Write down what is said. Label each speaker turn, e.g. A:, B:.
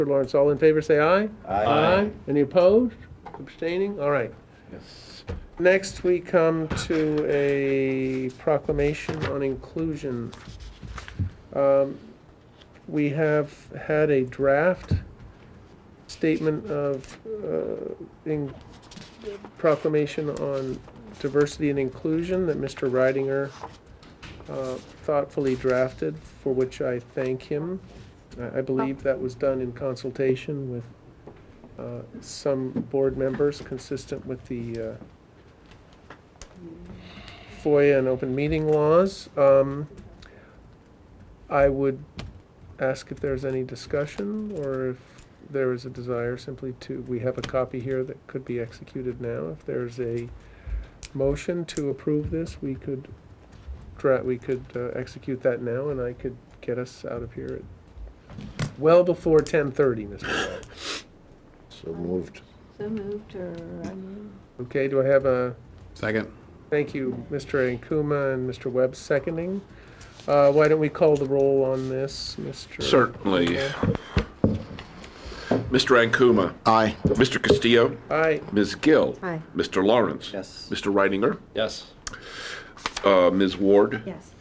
A: Mr. Lawrence, all in favor, say aye. Any opposed, abstaining? All right.
B: Yes.
A: Next, we come to a proclamation on inclusion. Um, We have had a draft statement of, uh, in- proclamation on diversity and inclusion that Mr. Ridinger uh, thoughtfully drafted, for which I thank him. I- I believe that was done in consultation with uh, some board members, consistent with the uh, FOIA and open meeting laws. Um, I would ask if there's any discussion or if there is a desire simply to, we have a copy here that could be executed now. If there's a motion to approve this, we could dra, we could uh, execute that now and I could get us out of here at well before ten thirty, Mr. Wright.
B: So moved.
C: So moved or, I mean,
A: Okay, do I have a?
D: Second.
A: Thank you, Mr. Ankuma and Mr. Webb seconding. Uh, Why don't we call the roll on this, Mr.?
E: Certainly. Mr. Ankuma.
D: Aye.
E: Mr. Castillo.
A: Aye,
E: Ms. Gill.
C: Aye.
E: Mr. Lawrence.
B: Yes.
E: Mr. Reidinger.
B: Yes.
E: Uh, Ms. Ward.
C: yes,